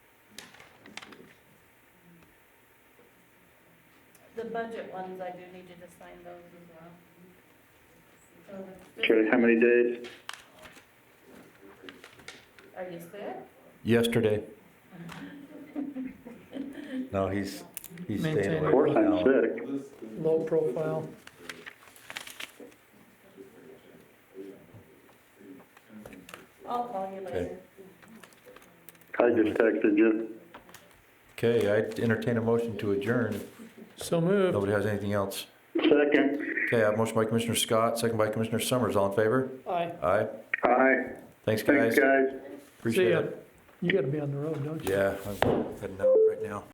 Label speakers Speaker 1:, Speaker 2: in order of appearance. Speaker 1: the budget ones, I do need you to sign those as well. So the-
Speaker 2: Okay, how many days?
Speaker 1: Are you clear?
Speaker 3: Yesterday. No, he's, he's
Speaker 4: Maintain
Speaker 3: staying
Speaker 4: it.
Speaker 3: away.
Speaker 2: Of course, I'm
Speaker 3: No.
Speaker 2: sick.
Speaker 4: low profile.
Speaker 1: I'll call you later.
Speaker 2: I just texted you.
Speaker 3: Okay, I entertain a motion to adjourn if
Speaker 4: So moved.
Speaker 3: nobody has anything else.
Speaker 2: Second,
Speaker 3: Okay, I have a motion by Commissioner Scott, second by Commissioner Summers. All in favor?
Speaker 4: Aye.
Speaker 3: Aye.
Speaker 2: aye.
Speaker 3: Thanks,
Speaker 2: Thanks,
Speaker 3: guys.
Speaker 2: guys.
Speaker 4: See
Speaker 3: Appreciate
Speaker 4: ya.
Speaker 3: it.
Speaker 4: You gotta be on the road, don't you?
Speaker 3: Yeah, I'm heading out right now.